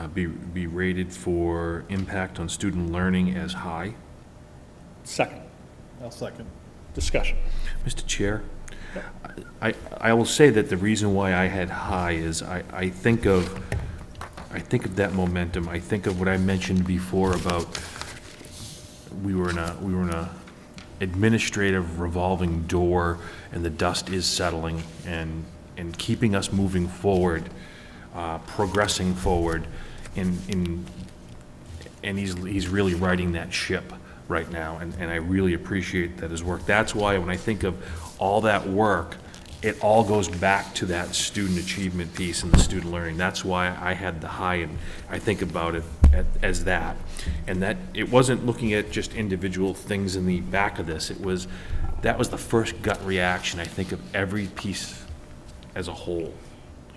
uh, be, be rated for impact on student learning as high. Second, I'll second. discussion. Mr. Chair, I, I will say that the reason why I had high is I, I think of, I think of that momentum. I think of what I mentioned before about we were in a, we were in a administrative revolving door and the dust is settling and, and keeping us moving forward, uh, progressing forward in, in and he's, he's really riding that ship right now, and, and I really appreciate that his work. That's why when I think of all that work, it all goes back to that student achievement piece and the student learning. That's why I had the high, and I think about it at- as that. And that, it wasn't looking at just individual things in the back of this, it was, that was the first gut reaction, I think, of every piece as a whole.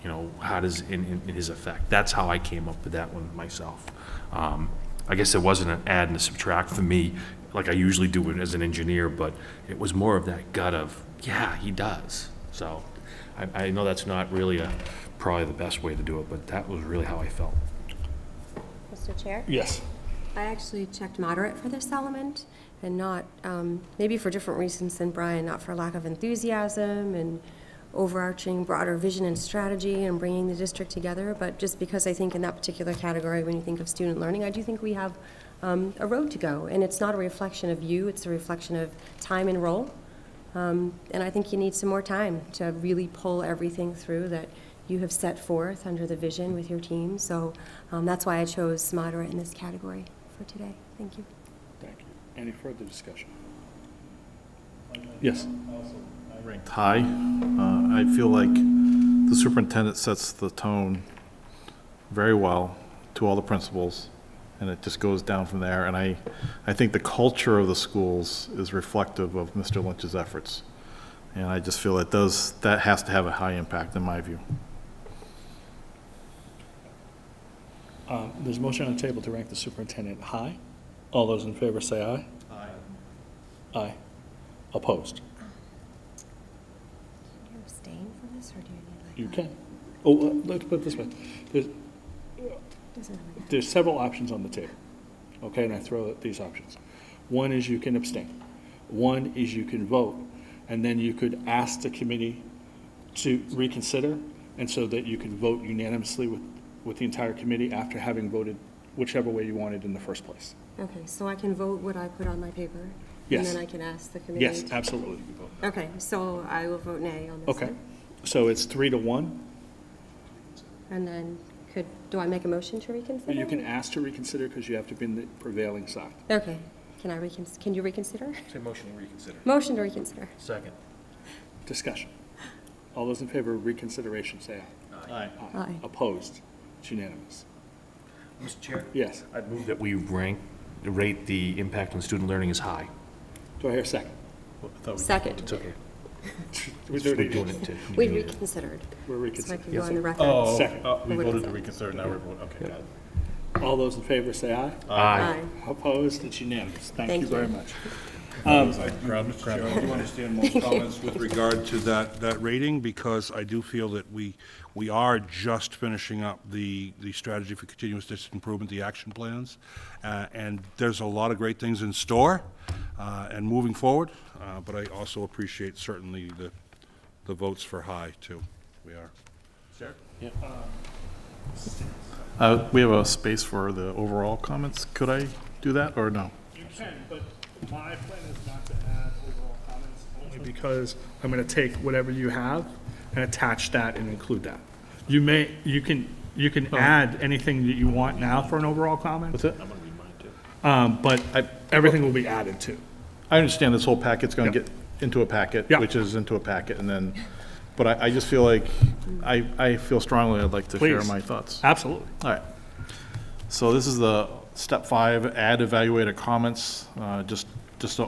You know, how does, in, in- in his effect, that's how I came up with that one myself. Um, I guess it wasn't an add and a subtract for me, like I usually do it as an engineer, but it was more of that gut of, yeah, he does. So, I, I know that's not really a, probably the best way to do it, but that was really how I felt. Mr. Chair? Yes. I actually checked moderate for this element and not, um, maybe for different reasons than Brian, not for lack of enthusiasm and overarching broader vision and strategy and bringing the district together, but just because I think in that particular category, when you think of student learning, I do think we have um, a road to go. And it's not a reflection of you, it's a reflection of time and role. Um, And I think you need some more time to really pull everything through that you have set forth under the vision with your team. So um, that's why I chose moderate in this category for today. Thank you. Thank you. Any further discussion? Yes. Ranked high. Uh, I feel like the superintendent sets the tone very well to all the principals, and it just goes down from there. And I, I think the culture of the schools is reflective of Mr. Lynch's efforts. And I just feel it does, that has to have a high impact in my view. Um, There's a motion on the table to rank the superintendent high. All those in favor say aye. Aye. Aye. Opposed? Can you abstain from this, or do you You need like? can. Oh, uh, let's put it this way. There's, Doesn't really matter. there's several options on the table, okay, and I throw out these options. One is you can abstain. One is you can vote, and then you could ask the committee to reconsider, and so that you can vote unanimously with, with the entire committee after having voted whichever way you wanted in the first place. Okay, so I can vote what I put on my paper? Yes. And then I can ask the committee? Yes, to- absolutely. Okay, so I will vote nay on this Okay, one. so it's three to one. And then could, do I make a motion to reconsider? You can ask to reconsider because you have to be in the prevailing side. Okay, can I recon, can you reconsider? Say motion to reconsider. Motion to reconsider. Second. Discussion. All those in favor of reconsideration, say aye. Aye. Uh, Aye. oh. Opposed? It's unanimous. Mr. Chair? Yes. I'd move that we rank, rate the impact on student learning as high. Do I hear a second? Second, okay. We We're do it doing again. it to. we reconsidered, We're so I reconsidering. can go on the record. Second. oh, we voted to reconsider, now we're voting, okay, got it. All those in favor say aye. Aye. Opposed? It's unanimous. Thank Thank you very you. much. Mr. Chair, I do understand most comments with regard to that, that rating, because I do feel that we, we are just finishing up the, the strategy for continuous district improvement, the action plans, uh, and there's a lot of great things in store uh, and moving forward, uh, but I also appreciate certainly the, the votes for high, too. We are. Uh, we have a space for the overall comments. Could I do that, or no? You can, but my plan is not to add overall comments, only because I'm gonna take whatever you have and attach that and include that. You may, you can, you can add anything that you want now for an overall comment. What's it? Um, but I- everything will be added to. I understand this whole packet's gonna Yeah. get into a packet, Yeah. which is into a packet, and then, but I, I just feel like, I, I feel strongly I'd like to share Please. my thoughts. Absolutely. All right. So this is the step five, add evaluator comments, uh, just, just a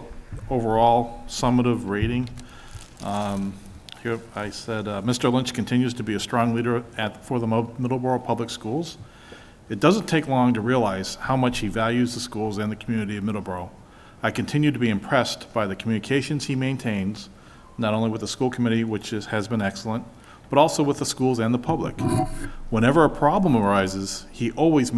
overall summative rating. Um, Here, I said, uh, Mr. Lynch continues to be a strong leader at, for the Mo- Middleborough Public Schools. It doesn't take long to realize how much he values the schools and the community of Middleborough. I continue to be impressed by the communications he maintains, not only with the school committee, which is, has been excellent, but also with the schools and the public. Whenever a problem arises, he always